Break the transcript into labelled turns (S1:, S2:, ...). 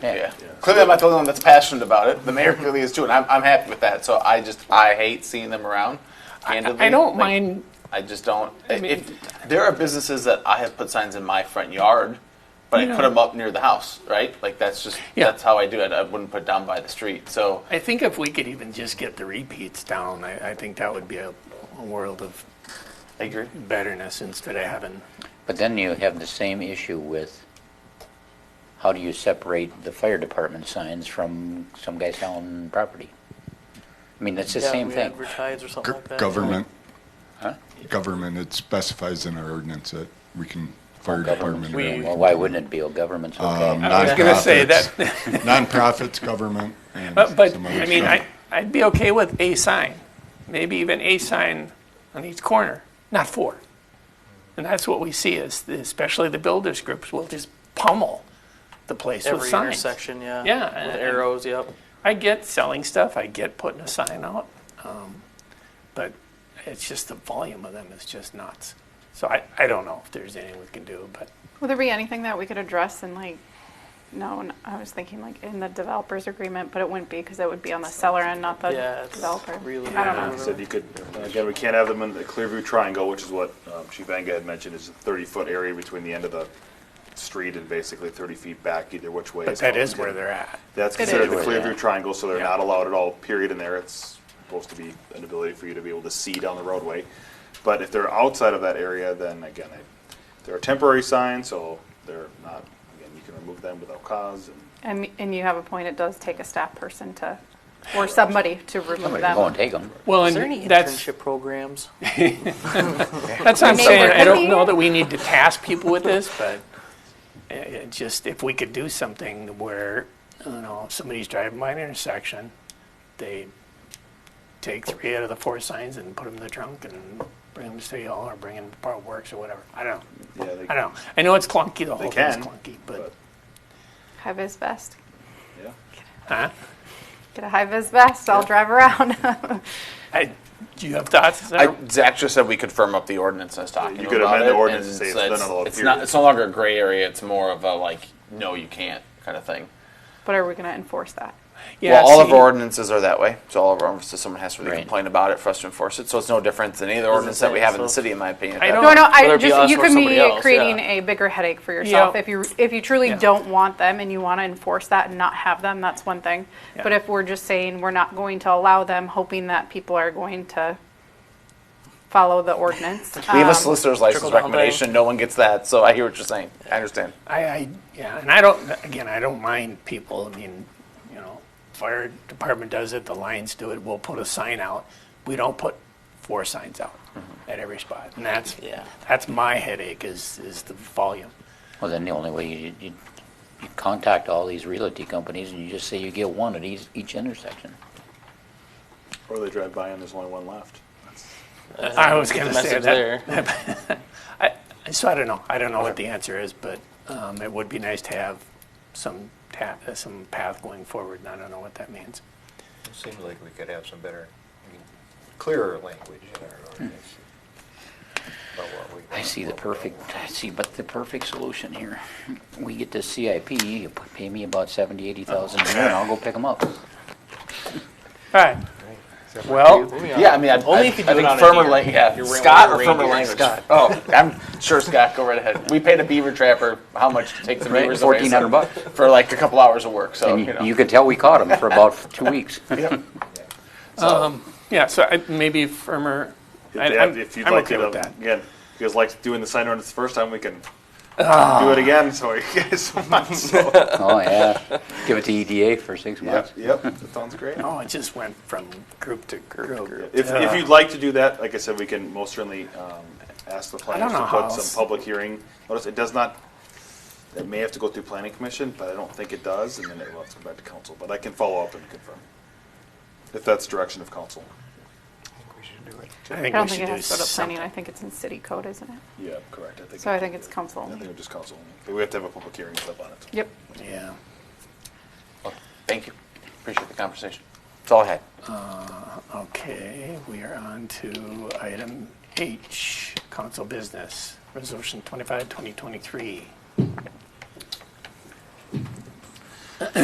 S1: Yeah. Clearly, I'm not the only one that's passionate about it. The mayor clearly is too, and I'm, I'm happy with that. So I just I hate seeing them around. Candidly,
S2: I don't
S1: Like,
S2: mind,
S1: I just don't.
S2: mean-
S1: if there are businesses that I have put signs in my front yard, but I
S2: You
S1: put
S2: know-
S1: them up near the house, right? Like that's just
S2: Yeah.
S1: that's how I do it. I wouldn't put down by the street. So
S2: I think if we could even just get the repeats down, I, I think that would be a, a world of
S1: I agree.
S2: betterness instead of having,
S3: But then you have the same issue with how do you separate the fire department signs from some guy selling property? I mean, it's the
S4: Yeah,
S3: same
S4: we
S3: thing.
S4: Advertise or something
S5: Go-
S4: like that.
S5: Government. Government, it specifies in our ordinance that we can, fire department. or
S3: Well, why wouldn't it be? Oh, government's
S5: um,
S3: okay.
S2: I was gonna say that-
S5: nonprofits- Nonprofits, government, and
S2: but, but,
S5: some other
S2: I mean,
S5: stuff.
S2: I, I'd be okay with a sign, maybe even a sign on each corner, not four. And that's what we see is, the- especially the builders groups will just pummel the place with
S4: Every
S2: signs.
S4: intersection, yeah.
S2: Yeah,
S4: With
S2: and-
S4: arrows, yep.
S2: I get selling stuff, I get putting a sign out, um, but it's just the volume of them is just nuts. So I, I don't know if there's anything we can do, but
S6: Would there be anything that we could address in like, no, n- I was thinking like in the developer's agreement, but it wouldn't be because it would be on the seller and not the
S4: Yeah, it's
S6: developer.
S4: really-
S6: I don't know.
S7: He said you could, uh, again, we can't have them in the Clearview Triangle, which is what um, Chief Anga had mentioned, is a 30-foot area between the end of the street and basically 30 feet back either which way.
S2: but that is where they're at.
S7: That's
S6: It is.
S7: considered the
S3: Where they're
S7: Clearview
S3: at.
S7: Triangle, so they're
S2: Yeah.
S7: not allowed at all, period, in there. It's supposed to be an ability for you to be able to see down the roadway. But if they're outside of that area, then again, they- they're a temporary sign, so they're not, again, you can remove them without cause and
S6: And, and you have a point, it does take a staff person to, or somebody to remove
S3: Somebody go and
S6: them.
S3: take them.
S2: Well,
S4: Is there any
S2: and that's,
S4: internship programs?
S2: that's what I'm
S6: Maybe
S2: saying.
S6: there
S2: I
S6: could
S2: don't
S6: be.
S2: know that we need to task people with this, but it- it just, if we could do something where, you know, if somebody's driving by an intersection, they take three out of the four signs and put them in the trunk and bring them to City Hall or bring them to Park Works or whatever. I don't know.
S7: Yeah, they,
S2: I don't know. I know it's clunky. The
S7: they
S2: whole thing's
S7: can,
S2: clunky, but
S7: but,
S6: High vis vest.
S7: yeah.
S2: huh?
S6: Get a high vis vest, I'll drive around.
S2: I, do you have thoughts?
S1: I, Zach just said we could firm up the ordinance I was talking
S7: You
S1: to
S7: could
S1: him about
S7: amend the
S1: it,
S7: ordinance
S1: and
S7: to say it's
S1: it's,
S7: then allowed,
S1: it's not.
S7: period.
S1: It's no longer a gray area. It's more of a like, no, you can't kind of thing.
S6: But are we going to enforce that?
S2: yeah,
S1: well, all of
S2: see,
S1: our ordinances are that way. So all of our ordinances, someone has to really
S3: Right.
S1: complain about it for us to enforce it. So it's no different than any other ordinance that we have in the city, in my opinion.
S2: I
S1: That-
S2: don't-
S6: No, no,
S4: Whether
S6: I
S4: it be
S6: just,
S4: us
S6: you
S4: or
S6: could
S4: somebody
S6: be
S4: else,
S6: creating
S4: yeah.
S6: a bigger headache for yourself. If you, if you truly
S2: Yeah.
S6: don't want them and you want to enforce that and not have them, that's one thing. But
S2: Yeah.
S6: if we're just saying we're not going to allow them, hoping that people are going to follow the ordinance.
S1: We have
S6: um,
S1: a solicitor's license
S4: trickle-down
S1: recommendation. No one gets that. So I hear what you're saying. I understand.
S2: I, I, yeah, and I don't. Again, I don't mind people. I mean, you know, fire department does it. The Lions do it. We'll put a sign out. We don't put four signs out
S7: Mm-hmm.
S2: at every spot, and that's
S4: Yeah.
S2: that's my headache is is the volume.
S3: Well, then the only way you, you, you contact all these realty companies and you just say you get one at each, each intersection.
S7: Or they drive by and there's only one left.
S2: I was going to say
S4: Message
S2: that.
S4: there.
S2: So I don't know. I don't know what the answer is, but um, it would be nice to have some ta- uh, some path going forward. And I don't know what that means.
S8: It seems like we could have some better, I mean, clearer language in our ordinance. about what we
S3: Hmm. I
S8: want,
S3: see the
S8: what we don't
S3: perfect,
S8: want.
S3: I see, but the perfect solution here. We get this CIP, you put- pay me about seventy, eighty thousand a year and I'll go pick them up.
S2: All right. Well,
S4: Moving on.
S1: Yeah, I mean, I, I,
S4: Only if you
S1: I
S4: do it
S1: think
S4: on a
S1: firmer
S4: deer.
S1: language. Yeah,
S4: You're wearing-
S1: Scott
S4: wearing
S1: or
S4: a
S1: firmer
S4: reindeer,
S1: language.
S4: Scott.
S1: Oh, I'm sure Scott. Go right ahead. We paid a beaver trapper how much to take the
S3: Right,
S1: beavers away,
S3: 1400
S1: so-
S3: bucks.
S1: for like a couple hours of work. So
S3: And
S1: you
S3: you,
S1: know.
S3: you could tell we caught them for about two weeks.
S2: yeah. So I, maybe firmer.
S7: If,
S2: I,
S7: they
S2: I'm,
S7: have, if you'd
S2: I'm
S7: like
S2: okay
S7: to,
S2: with that.
S7: again, if you guys liked doing the sign ordinance the first time, we can do it again. So you guys so much. So.
S3: Oh, yeah. Give it to EDA for six months.
S7: yep, that sounds great.
S2: Oh, it just went from group to group.
S7: If, if you'd like to do that, like I said, we can most certainly um, ask the planners
S2: know
S7: to
S2: how
S7: put
S2: else-
S7: some public hearing notice. It does not. It may have to go through planning commission, but I don't think it does, and then it will have to come back to council. But I can follow up and confirm if that's direction of council.
S8: I think we should do it.
S2: I
S6: I
S2: think
S6: don't
S2: we
S6: think
S2: should
S6: it
S2: do
S6: has to go to planning,
S2: something.
S6: I think it's in city code, isn't it?
S7: Yeah, correct. I think.
S6: So I think it's council.
S7: I think it's just council. only. But we have to have a public hearing stuff on it.
S6: Yep.
S2: Yeah.
S1: Thank you. Appreciate the conversation. That's all I had.
S2: Okay, we are on to item H, council business, resolution 25, 2023.